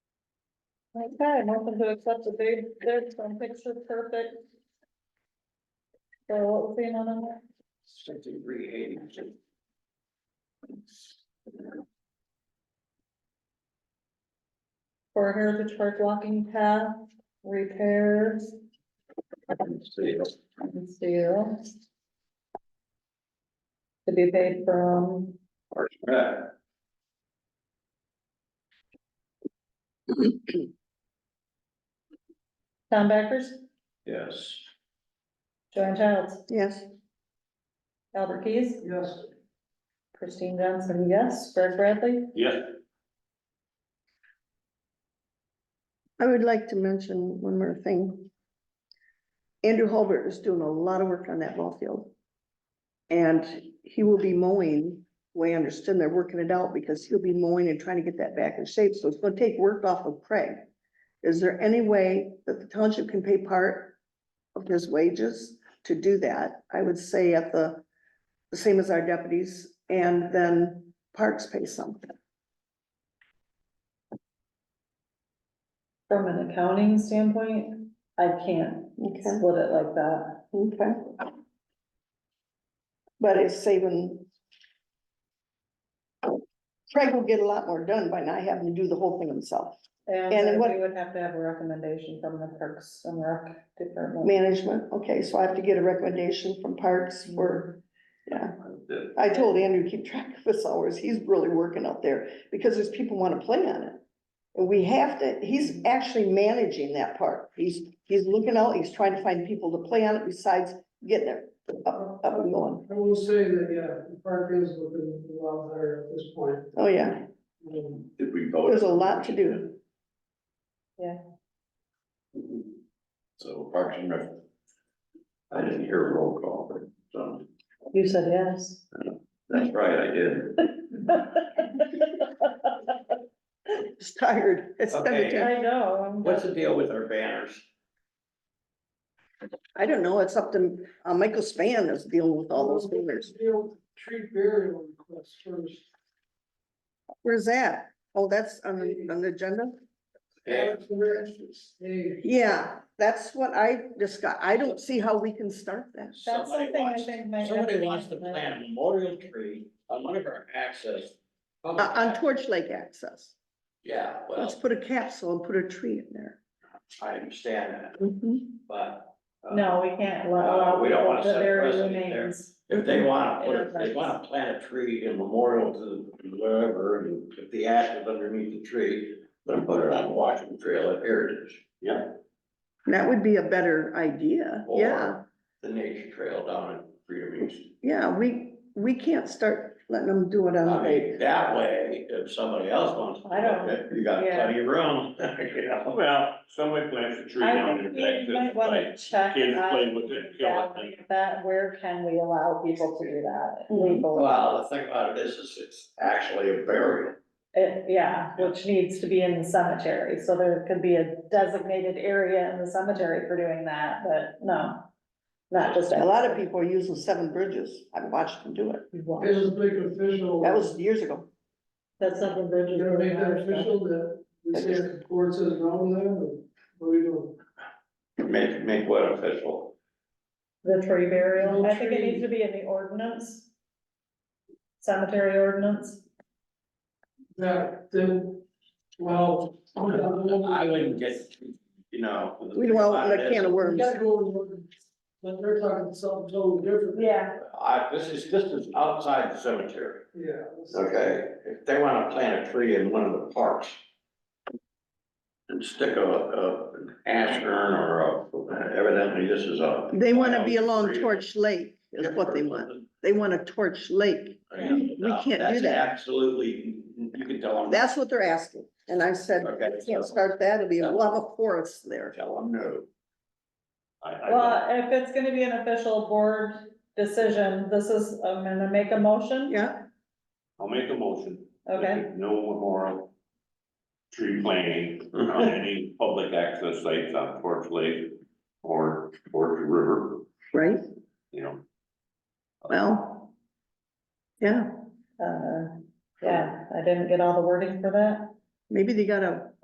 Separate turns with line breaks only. Okay, motion to accept the bid, bid from Picture Perfect. So what was the amount on that?
Sixty-three eighty.
For Heritage Park walking path, repairs, and steel. To be paid from, Tom Backers,
Yes.
Joanne Childs,
Yes.
Albert Keys,
Yes.
Christine Johnson, yes, Greg Bradley.
Yes.
I would like to mention one more thing. Andrew Holbert is doing a lot of work on that ball field. And he will be mowing, we understand they're working it out because he'll be mowing and trying to get that back in shape, so it's gonna take work off of Craig. Is there any way that the township can pay part of his wages to do that? I would say at the, the same as our deputies, and then parks pay something.
From an accounting standpoint, I can't split it like that.
Okay. But it's saving. Craig will get a lot more done by not having to do the whole thing himself. And
And
what-
we would have to have a recommendation from the Parks and Rec Department.
Management, okay, so I have to get a recommendation from Parks for, yeah. I told Andrew, keep track of his hours. He's really working out there because there's people want to play on it. And we have to, he's actually managing that part. He's, he's looking out, he's trying to find people to play on it besides getting it up, up and going.
I will say that, yeah, the park is looking a lot better at this point.
Oh, yeah.
Um,
Did we vote?
There's a lot to do.
So Parks and Rec. I didn't hear a roll call, but, so,
You said yes.
that's right, I did.
It's tired. It's
Okay.
cemetery.
I know. I'm-
What's the deal with our banners?
I don't know. It's up to, uh, Michael Span is dealing with all
Oh.
those fingers.
Field tree burial request first.
Where's that? Oh, that's on, the- on the agenda?
Yeah.
That's where it's- Hey,
Yeah, that's what I discussed. I don't see how we can start that.
That's
Somebody
something I
wants-
think might. have
Somebody
to be
wants to
implemented.
plant a memorial tree on one of our access.
Uh, on Torch Lake access.
Yeah,
Let's
well,
put a capsule and put a tree in there.
I understand that, but. uh,
No, we can't
Uh,
allow.
we don't wanna
people to
set
bury
precedent there.
remains.
If they wanna,
In
put
our
a- they
parks.
wanna plant a tree in memorial to wherever, and if the ash is underneath the tree, then put it on Washington Trail at Heritage. Yeah.
That would be a better idea. Yeah,
Or the nature trail down at Freedom East.
yeah, we, we can't start letting them do it
I
on
mean,
the.
that way, if somebody else wants. to
I don't-
do it, You got
yeah.
plenty of room, you know?
Well, somebody plants a tree
I
down
think
in
we might
Texas,
wanna
like,
check.
kids play
on
with it, kill it.
that- That, where can we allow people to do that
Mhm.
legally?
Well, the thing about it is, is it's actually a burial.
It- yeah, which needs to be in the cemetery, so there could be a designated area in the cemetery for doing that, but no. Not just.
A lot of people are using seven bridges. I've watched them do it.
This is big official.
That was years ago.
That's something Bridget.
You gonna make that official that we say if the court says no then, or what are we doing?
Make, make what official?
The tree burial,
No
I think it
tree.
needs to be in the ordinance. Cemetery ordinance,
That, then, well.
I wouldn't get, you know. the
We
thing
don't
about
want
it
a
is-
can of
We
worms.
gotta go, and look, but they're talking something totally different.
yeah,
I, this is, this is outside the cemetery.
Yeah. let's-
Okay. If they wanna plant a tree in one of the parks. And stick a, a an ash urn or a, evidently this is a.
They wanna be along
Tree.
Torch Lake is what they want. They want a Torch Lake.
And,
We
uh,
can't do
that's
that.
Absolutely, you can tell them.
That's what they're asking. And I said,
Okay.
"We can't start that. It'll be, we'll have a forest there.
Tell them no. I, I.
well, if it's gonna be an official board decision, this is, I'm gonna make a motion.
Yeah,
I'll make a motion. that
Okay,
there's No memorial tree planting on
Mhm.
any public access sites on Torch Lake or Torch River,
right?
you know.
Well. Yeah,
uh, yeah, I didn't get all the wording for that.
maybe they gotta